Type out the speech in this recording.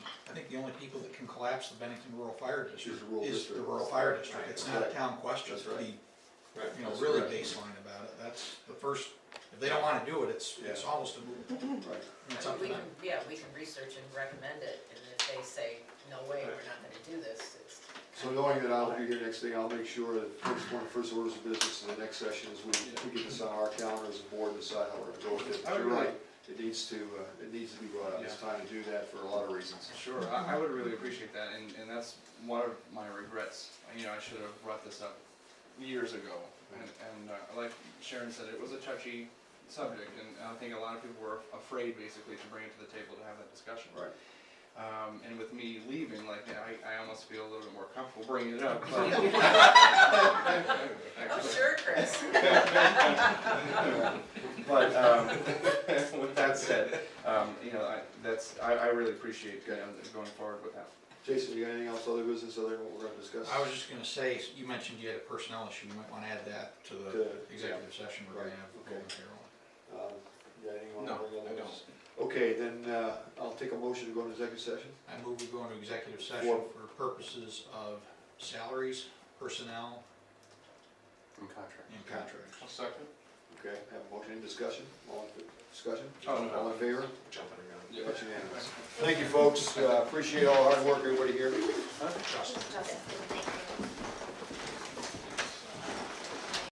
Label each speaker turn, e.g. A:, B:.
A: the only people that can collapse the Bennington Rural Fire District
B: the rural
A: is the
B: district.
A: rural fire district,
B: Right,
A: it's
B: that's
A: not a
B: right.
A: town question
B: That's
A: to be,
B: Right,
A: you know,
B: that's
A: really
B: correct.
A: baseline about it, that's the first, if they don't wanna do it, it's, it's
B: Yeah.
A: almost a,
B: Right.
A: it's up to
C: We
A: them.
C: can, yeah, we can research and recommend it, and if they say, no way, we're not gonna do this, it's.
B: So knowing that I'll be here next thing, I'll make sure that first one, first orders of business in the next session is we, we get this on our calendar as a board and decide how we're gonna go with it.
D: I would
B: You're
D: really-
B: right, it needs to, uh, it needs to be brought up, it's time to do that for a lot of reasons.
D: Sure, I, I would really appreciate that, and, and that's one of my regrets. You know, I should have brought this up years ago. And, and uh, like Sharon said, it was a touchy subject, and I think a lot of people were afraid basically to bring it to the table to have that discussion.
B: Right.
D: Um, and with me leaving, like, I, I almost feel a little bit more comfortable bringing it up. but-
C: Oh, sure, Chris.
D: But, um, with that said, um, you know, I, that's, I, I really appreciate, you know, going forward with that.
B: Jason, you got anything else, other business, other than what we're gonna discuss?
A: I was just gonna say, you mentioned you had a personnel issue, you might wanna add that to
D: uh,
A: the
B: Good.
A: executive session we're gonna
B: Right,
A: have with
B: okay.
A: Carol.
B: Um, You got anything on
D: No,
B: other
D: I
B: business? Okay, then, uh, I'll take a motion to go into executive session.
A: I move we go into executive session
B: For-
A: for purposes of salaries, personnel,
D: From contract.
A: and contracts.
D: second.
B: Okay, have a motion, any discussion, all in, discussion?
D: Oh, no.
B: All in favor?
A: Jumping around.
D: Yeah.
B: That's unanimous. Thank you, folks, uh, appreciate all the hard work, everybody here.
A: Justin.
E: Justin, thank you.